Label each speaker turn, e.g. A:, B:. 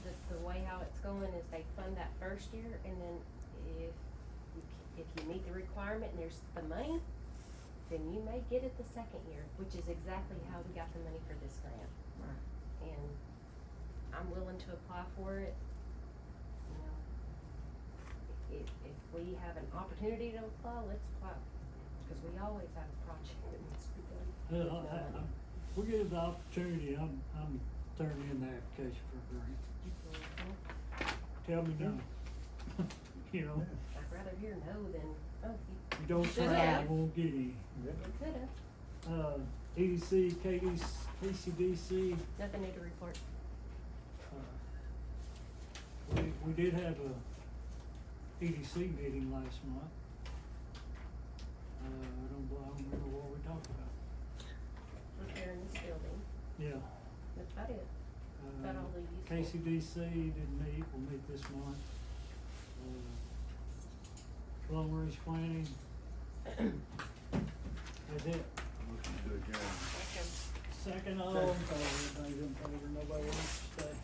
A: going is they fund that first year and then if you, c- if you meet the requirement and there's the money, then you may get it the second year, which is exactly how we got the money for this grant. And I'm willing to apply for it, you know. If, if we have an opportunity to apply, let's apply, cause we always have a project that needs to be done.
B: Yeah,
A: with
B: I,
A: no
B: I,
A: money.
B: I'm, we get the opportunity, I'm, I'm turning in the application for a grant.
A: Mhm.
B: Tell me no. You know,
A: I'd rather hear no than, oh, you,
B: you don't
A: Should
B: try,
A: have.
B: you won't get any.
A: you could've,
B: Uh, EDC, KDC, KCDC,
A: nothing new to report.
B: uh, we, we did have a EDC meeting last month. Uh, I don't, I don't remember what we talked about.
A: repairing this building,
B: Yeah.
A: that's about it.
B: Uh,
A: That all they used for.
B: KCDC didn't meet, will meet this month. Uh, Long Range Planning. That's it.
C: Motion to adjourn.
B: Second all, uh, everybody's in favor, nobody wants to stay.